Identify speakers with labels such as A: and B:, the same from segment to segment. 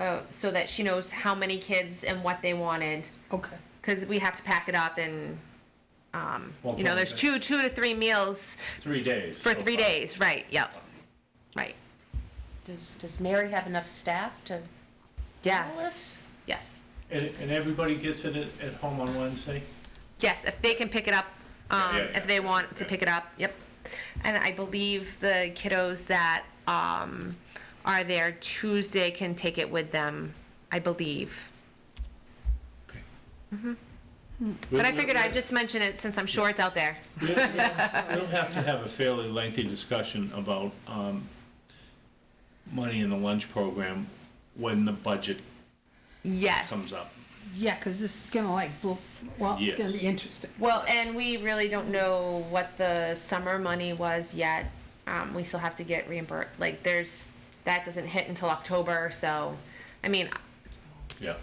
A: uh, so that she knows how many kids and what they wanted,
B: Okay.
A: because we have to pack it up and,
C: Well,
A: you know, there's two, two to three meals
C: Three days.
A: for
C: so
A: three
C: far.
A: days, right, yep, right,
D: Does, does Mary have enough staff to?
A: yes, yes.
C: And, and everybody gets it at, at home on Wednesday?
A: Yes, if they can pick it up, um,
C: yeah, yeah.
A: if they want to
C: Yeah.
A: pick it up, yep. And I believe the kiddos that um, are there Tuesday can take it with them, I believe. Mm-hmm. But I figured I'd just mention it since I'm sure it's out there.
C: We'll we'll- we'll have to have a fairly lengthy discussion about um, money in the lunch program when the budget
A: Yes.
C: comes up.
B: Yeah, because this is gonna like, blow- well, it's gonna
C: Yes.
B: be interesting.
A: Well, and we really don't know what the summer money was yet. Um, we still have to get reimbursed. Like, there's, that doesn't hit until October, so, I mean,
C: Yeah.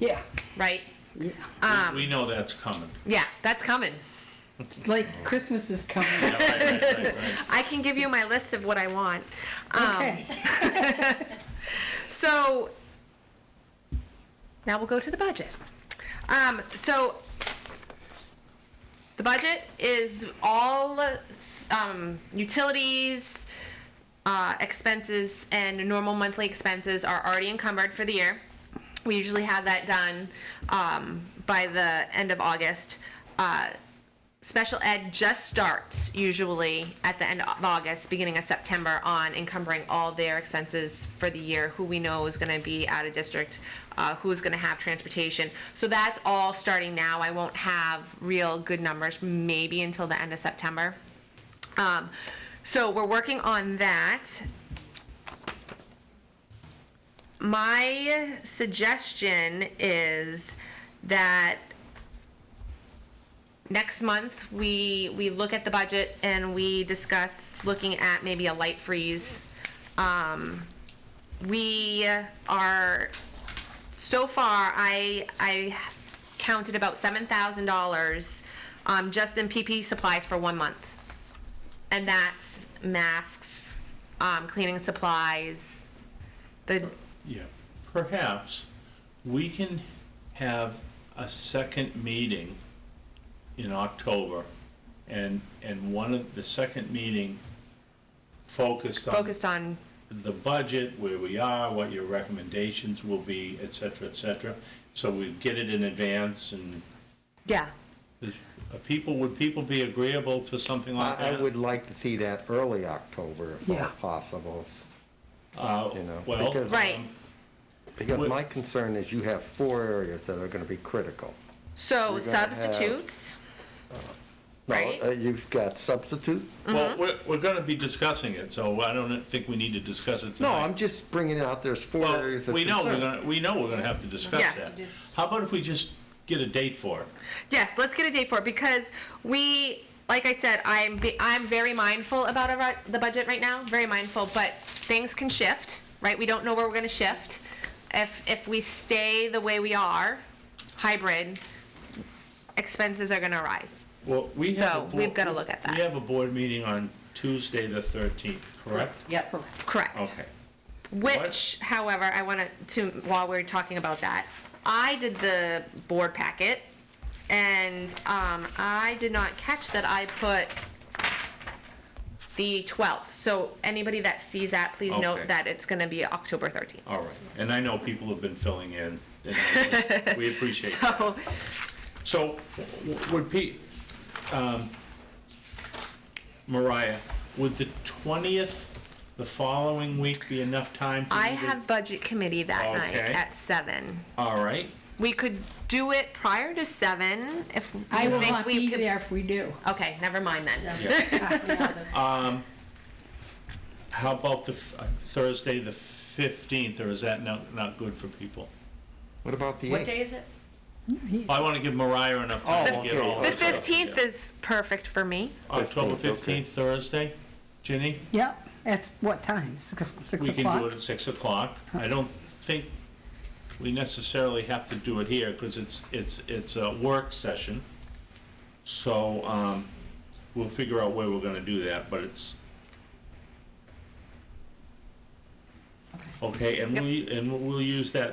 B: Yeah,
A: right?
B: yeah. Uh,
A: Um.
C: We know that's coming.
A: Yeah, that's coming.
B: Like Christmas is coming.
C: Yeah, right, right, right, right.
A: I can give you my list of what I want. Um,
B: Okay.
A: So now we'll go to the budget. Um, so the budget is all um, utilities, uh, expenses, and normal monthly expenses are already encumbered for the year. We usually have that done um, by the end of August. Uh, special ed just starts usually at the end of August, beginning of September, on encumbering all their expenses for the year, who we know is going to be out of district, uh, who's going to have transportation. So that's all starting now. I won't have real good numbers maybe until the end of September. Um, so we're working on that. My suggestion is that next month, we, we look at the budget and we discuss looking at maybe a light freeze. Um, we are, so far, I, I counted about seven thousand dollars, um, just in PP supplies for one month. And that's masks, um, cleaning supplies, the,
C: Yeah, perhaps we can have a second meeting in October and, and one of, the second meeting focused on
A: focused on,
C: the budget, where we are, what your recommendations will be, et cetera, et cetera. So we get it in advance and
A: yeah,
C: is- are people, would people be agreeable to something like
E: I, I
C: that?
E: would like to see that early October if
B: Yeah.
E: all possible,
C: Uh,
E: you know,
C: Well,
E: because-
A: right.
E: because
C: Would-
E: my concern is you have four areas that are gonna be critical.
A: So
E: We're gonna have-
A: substitutes,
E: Now,
A: Right.
E: uh, You've got substitute,
C: well, we're, we're gonna be discussing it, so I don't think we need to discuss it
E: no,
C: tonight.
E: I'm just bringing it out, there's four
C: Well,
E: areas of concern.
C: we know we're gonna, we know we're gonna have to discuss
A: Yeah.
C: that. How about if we just get a date for it?
A: Yes, let's get a date for it because we, like I said, I'm be, I'm very mindful about our, the budget right now, very mindful. But things can shift, right? We don't know where we're going to shift. If if we stay the way we are, hybrid, expenses are going to rise.
C: Well, we
A: have a So, board- we've gotta look at that.
C: We have a board meeting on Tuesday, the thirteenth, correct?
D: Yep.
A: Correct.
C: Okay.
A: Which, however, I wanted to, while we're talking about that, I did the board packet, and um, I did not catch that I put the 12th. So anybody that sees that, please
C: Okay.
A: note that it's going to be October 13th.
C: All right, and I know people have been filling in, and I- we appreciate that.
A: So,
C: So, w- w- would Pete, um, Mariah, would the twentieth, the following week be enough time? for
A: I
C: you to-
A: have budget committee that night
C: Okay.
A: at seven.
C: All right,
A: We could do it prior to seven if you
B: I will
A: think
B: not
A: we
B: be
A: could-
B: there if we do.
A: Okay, never mind then.
C: Um, how about the f- uh, Thursday, the fifteenth, or is that not, not good for people?
E: What about the
D: What
E: eighth?
D: day is it?
C: I want to give Mariah enough time to
E: Oh,
C: get
E: okay.
C: all.
A: The
C: her stuff.
A: 15th is perfect for me.
C: October
E: 15th, okay.
C: fifteenth, Thursday, Ginny?
B: Yep, that's what time, six, six
C: We can do
B: o'clock?
C: it at six o'clock. I don't think we necessarily have to do it here because it's, it's, it's a work session. So, um, we'll figure out where we're gonna do that, but it's. Okay, and we, and we'll use that